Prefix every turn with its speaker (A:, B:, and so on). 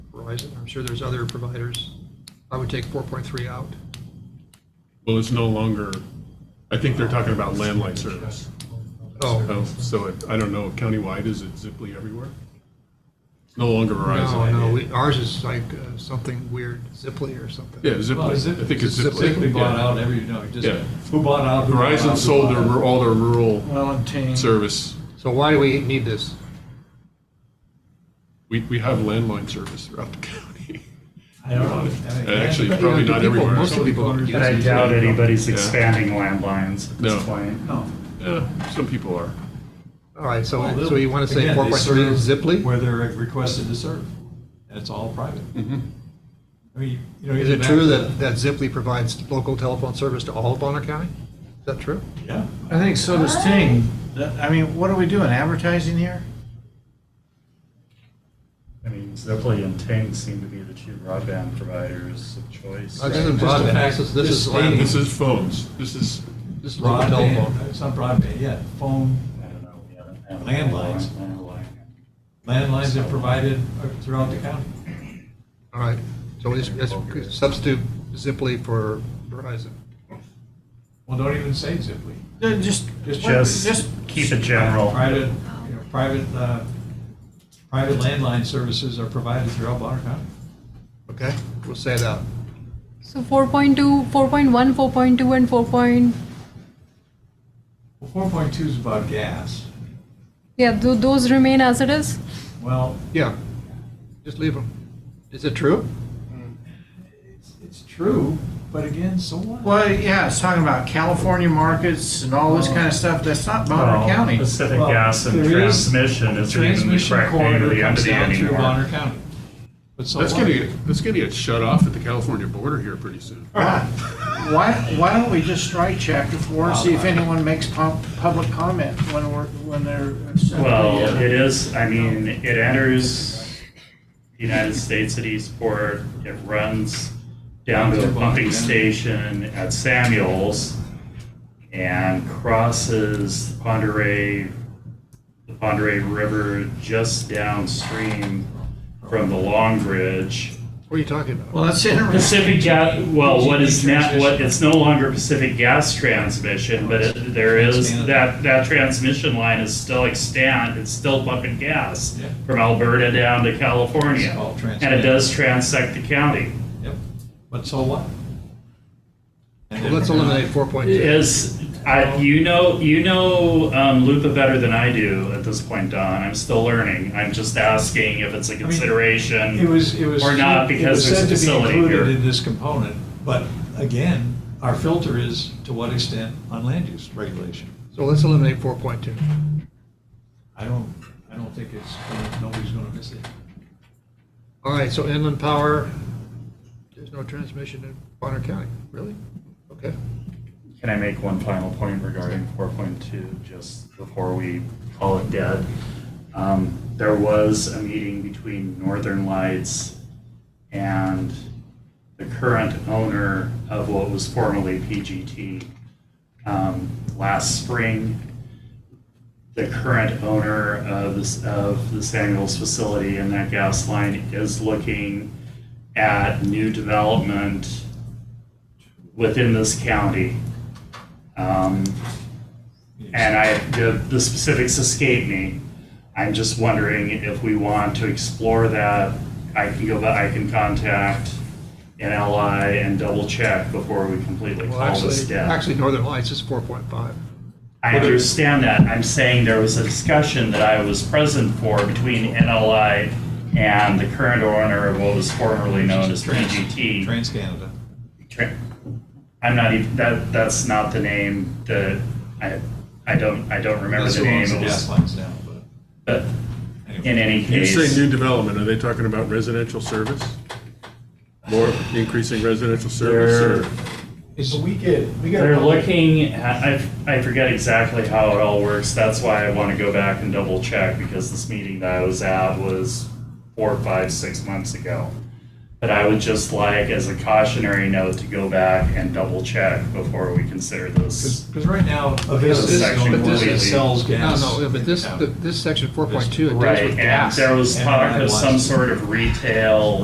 A: analyze it. I'm sure there's other providers. I would take 4.3 out.
B: Well, it's no longer, I think they're talking about landline service.
A: Oh,
B: Oh, So it- I don't know, countywide, is it Ziply everywhere? It's no longer
A: Oh, no,
B: Verizon.
A: no, we- ours is like uh, something weird, Ziply or something.
B: Yeah, Ziply, I think it's Ziply.
C: Ziply bought
B: yeah.
C: out every, no, just,
B: Yeah.
C: who bought out? who bought out,
B: Verizon
C: who
B: sold
C: bought
B: their,
C: out.
B: ru- all their rural
C: Wellington.
B: service.
A: So why do we need this?
B: We, we have landline service throughout the county.
C: I don't know.
B: Actually,
C: Yeah.
B: probably
A: do
B: not
A: people-
B: everywhere.
A: Most of the people don't use
D: But I
A: it.
D: doubt anybody's
B: Yeah.
D: expanding landlines at
B: No.
D: this point.
C: No.
B: Yeah, some people are.
A: All right, so,
C: Well,
A: so you want to say
C: again, they
A: 4.3 is
C: serve
A: Ziply?
C: Where they're requested to serve. And it's all private.
B: Mm-hmm.
C: I mean, you know.
A: Is it
C: back
A: true
C: to
A: that, that Ziply provides local telephone service to all of Bonner County? Is that true?
C: Yeah.
E: I think so does Ting. That- I mean, what are we doing, advertising here?
D: I mean, Ziply and Ting seem to be the two broadband providers of choice.
A: Uh, This isn't
C: Just the
A: broadband,
C: fact-
A: this is, this
C: just
A: is
C: stating-
A: land-
B: This is phones, this is,
A: this is local telephone.
C: Broadband, it's not broadband, yeah, phone,
D: I don't know, we haven't had a
C: Landlines.
D: landline.
C: landlines are provided uh, throughout the county.
A: All right, so we just- let's substitute Ziply for Verizon.
C: Well, don't even say Ziply.
E: Uh, Just,
D: Just
E: just,
D: keep it general.
C: Private, you know, private, uh, private landline services are provided throughout Bonner County.
A: Okay, we'll say that.
F: So 4.2, 4.1, 4.2, and 4. Point,
C: Well, four point two is about gas.
F: yeah, tho- those remain as it is.
C: Well,
A: Yeah, just leave them. Is it true?
C: it's, it's true, but again, so what?
E: well, yeah, it's talking about California markets and all this kind of stuff. That's not
D: Well,
E: Bonner County.
D: Pacific
C: Well,
D: Gas and
C: there is-
D: Transmission
C: the
D: is even the
C: Transmission
D: correct name of
C: corridor
D: the
C: comes
D: entity
C: down through Bonner
D: anymore.
C: County. But so
B: that's
C: what?
B: gonna get, that's gonna get shut off at the California border here pretty soon.
E: Why, why don't we just strike chapter four and see if anyone makes pub- public comment when we're, when they're.
D: Well, it is, I mean, it enters the United States at Eastport, it runs down to a pumping station at Samuels, and crosses the Ponderay, the Ponderay River just downstream from the Long Bridge.
A: What are you talking about?
E: Well, that's interesting.
D: Pacific Gas, well, what is now, what, it's no longer Pacific Gas Transmission, but it- there is, that, that transmission line is still extant, it's still pumping gas
C: Yeah.
D: from Alberta down to California.
C: It's all
D: And it does transect the county.
C: Yep. But so what? And
A: Well, Let's
C: then-
A: eliminate 4.2.
D: Is, I, you know, you know, um, Lupa better than I do at this point, Don, I'm still learning, I'm just asking if it's a consideration.
C: It was, it was.
D: Or not,
C: it
D: because
C: was
D: there's
C: said
D: a
C: to be
D: facility
C: included
D: here.
C: In this component, but again, our filter is to what extent on land use regulation.
A: So let's eliminate 4.2.
C: I don't, I don't think it's, gonna- nobody's gonna miss it.
A: All right, so inland power, there's no transmission in Bonner County, really? Okay.
D: Can I make one final point regarding four point two, just before we call it dead? Um, there was a meeting between Northern Lights and the current owner of what was formerly PGT, um, last spring. The current owner of this, of the Samuels facility and that gas line is looking at new development within this county. Um, and I, the, the specifics escape me. I'm just wondering if we want to explore that. I can go, back- I can contact NLI and double check before we completely
A: Well,
D: call this
A: actually,
D: dead.
A: actually Northern Lights is 4.5.
D: I understand that. I'm saying there was a discussion that I was present for between NLI and the current owner of what was formerly known as PGT.
C: Trans Canada.
D: Tra- I'm not even that. That's not the name. The I I don't I don't remember
C: That's
D: the
C: who
D: name.
C: owns the
D: It was-
C: gas lines now, but
D: but in
C: anyway.
D: any
B: You
D: case,
B: say new development, are they talking about residential service? More increasing residential service or?
C: It's, we get, we get.
D: they're looking. At, I I forget exactly how it all works. That's why I want to go back and double check because this meeting that I was at was four, five, six months ago. But I would just like, as a cautionary note, to go back and double check before we consider this.
C: Because right now, a business is
D: section
C: the only one
D: completely-
C: that sells
A: No,
C: gas.
A: no, but
C: in
A: this,
C: town.
A: this section 4.2, it deals
D: Right,
A: with
D: and
A: gas.
D: there was
C: and
D: talk
C: that
D: of some
C: was-
D: sort of retail